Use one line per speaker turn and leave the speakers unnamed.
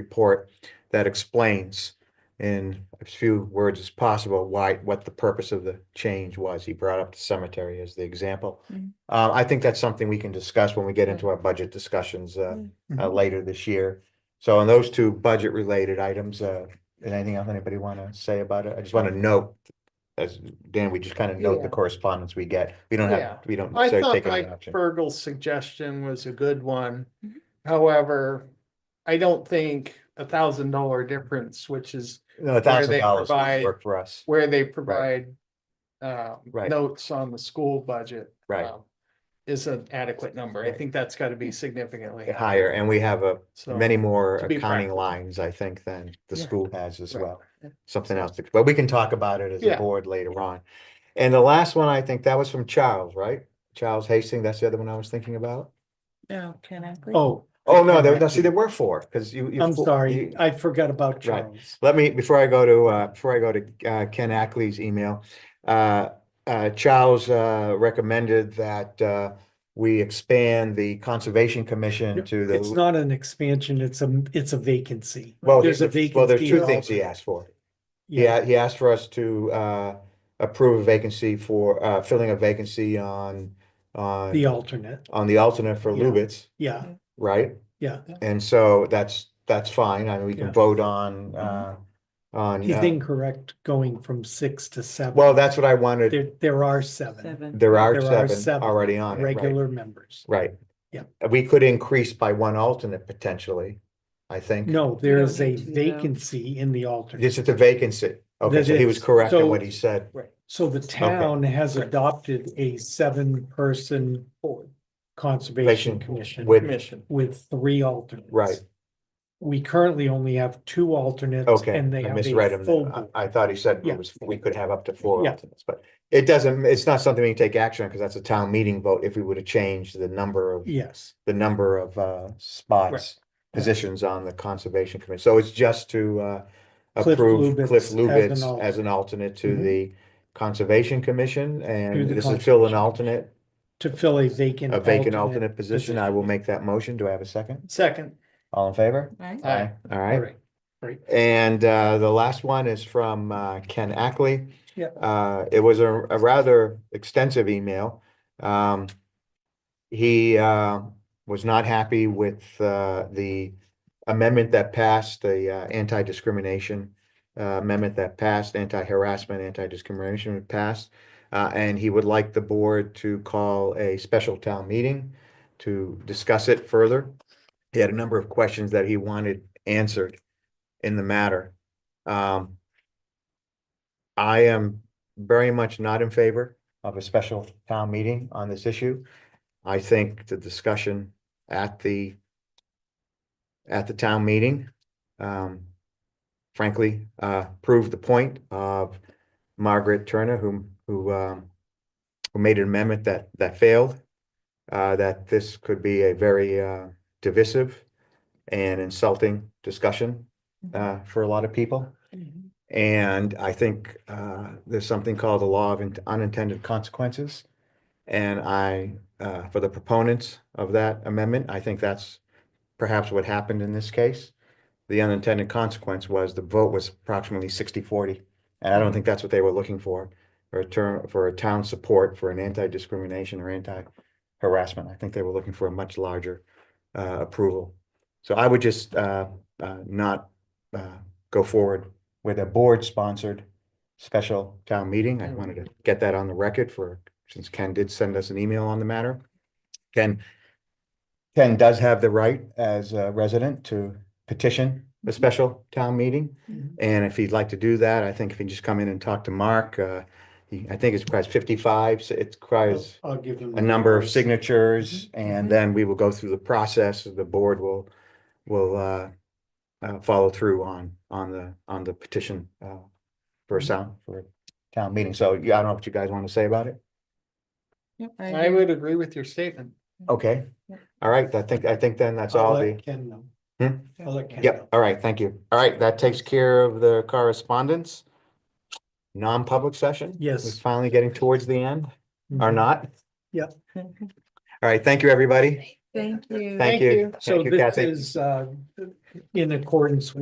report that explains in as few words as possible why, what the purpose of the change was. He brought up the cemetery as the example.
Mm-hmm.
Mm.
Uh, I think that's something we can discuss when we get into our budget discussions, uh,
Mm-hmm.
uh, later this year. So on those two budget-related items, uh, is anything else anybody want to say about it? I just want to note, as Dan, we just kind of note
Yeah.
the correspondence we get. We don't
Yeah.
have, we don't
I
necessarily
thought
take it as
Mike
an action.
Fergal's suggestion was a good one.
Mhm.
However, I don't think a thousand dollar difference, which is
No, a thousand
they
dollars would
provide-
work for us.
where they provide um,
Right.
notes on the school budget.
Right.
um, Is an adequate number. I
Right.
think that's gotta be significantly.
Higher, and we have a,
So,
many more
to be
accounting
practical.
lines, I think, than the
Yeah.
school has as
Right.
well. Something else, to- but we can talk about it as a
Yeah.
board later on. And the last one, I think that was from Charles, right? Charles Hastings, that's the other one I was thinking about.
No, can I? please?
Oh.
Oh, no, there,
okay.
no, see, there were four, because you. you
I'm
fo- you-
sorry, I forgot about Charles.
Let me, before I go to, uh, before I go to, uh, Ken Ackley's email, uh, uh, Charles, uh, recommended that, uh, we expand the Conservation Commission to
It's
the,
not an expansion, it's a, it's a vacancy.
well,
There's a
he- well, there's
vacancy
two
in
things he
alternate.
asked for. Yeah, he asked for us to, uh, approve a vacancy for, uh, filling a vacancy on,
The
on,
alternate,
on the alternate for
Yeah.
Lubitz,
yeah,
right?
yeah.
And so that's, that's fine. I mean, we can
Yeah. Mm-hmm.
vote on, uh, on,
He's
uh,
incorrect going from six to seven.
well, that's what I wanted.
There, there are seven
Seven.
There are
There are
seven
seven
already on it, right?
regular members.
Right. Uh,
Yeah.
We could increase by one alternate potentially, I think.
No, there
No
is a
need to, though.
vacancy in the alternate.
This is a vacancy. Okay,
That
so he was
is.
correct in
So-
what he said.
So the town has adopted a seven-person
Relation
conservation commission.
With,
Commission.
with three alternates.
Right.
We currently only have two alternates
okay, I
and they have
misread
a
him.
full
then.
board.
I I thought he said
Yeah.
it was, we could have up to four
Yeah.
alternates, but it doesn't, it's not something we can take action on because that's a town meeting vote if we were to change the number of,
Yes,
the number of uh spots, positions on the Conservation Commission. So it's just to uh
Cliff
approve
Lubitz
Cliff
as an
Lubitz
alternate.
as an alternate to
Mhm.
the Conservation Commission and
the
this is fill an
Conservation
alternate,
to fill a vacant.
a vacant alternate position. I will make that motion. Do I have a second?
Second.
All in favor?
Right?
Aye.
All
All
right.
right.
And uh, the last one is from uh, Ken Ackley.
Yeah.
Uh, it was a, a rather extensive email. Um, he uh, was not happy with uh, the amendment that passed, the uh, anti-discrimination uh, amendment that passed, anti-harassment, anti-discrimination passed. Uh, and he would like the board to call a special town meeting to discuss it further. He had a number of questions that he wanted answered in the matter. Um, I am very much not in favor of a special town meeting on this issue. I think the discussion at the at the town meeting, um, frankly, uh, proved the point of Margaret Turner, who, who, um, who made an amendment that, that failed, uh, that this could be a very, uh, divisive and insulting discussion uh, for a lot of people.
Mhm.
And I think uh, there's something called the law of in- unintended consequences. And I, uh, for the proponents of that amendment, I think that's perhaps what happened in this case. The unintended consequence was the vote was approximately 60 40. And I don't think that's what they were looking for, for a term, for a town support for an anti discrimination or anti harassment. I think they were looking for a much larger uh, approval. So I would just uh, uh, not uh, go forward with a board-sponsored special town meeting. I wanted to get that on the record for, since Ken did send us an email on the matter. Ken, Ken does have the right as a resident to petition a special town meeting.
Mhm.
And if he'd like to do that, I think if he just come in and talk to Mark, uh, he, I think it's requires fifty-five, so it requires
I'll give them.
a number of
signatures.
signatures, and
Mhm.
then we will go through the process, the board will, will, uh, uh, follow through on, on the, on the petition, uh, for a sound, for a town meeting, so, yeah, I don't know what you guys want to say about it,
Yep,
I
agree.
would agree with your statement.
okay?
Yeah.
All right, I think, I think then that's
I'll
all
let
the,
Ken know.
Hmm?
I'll let Ken
yep,
know.
all right, thank you, all right, that takes care of the correspondence. Non-public session?
Yes.
We're finally getting towards the end, or
Mhm.
not?
Yep.
All right, thank you, everybody.
Thank you.
Thank you.
So
Thank you,
this
Kathy.
is, uh, in accordance with.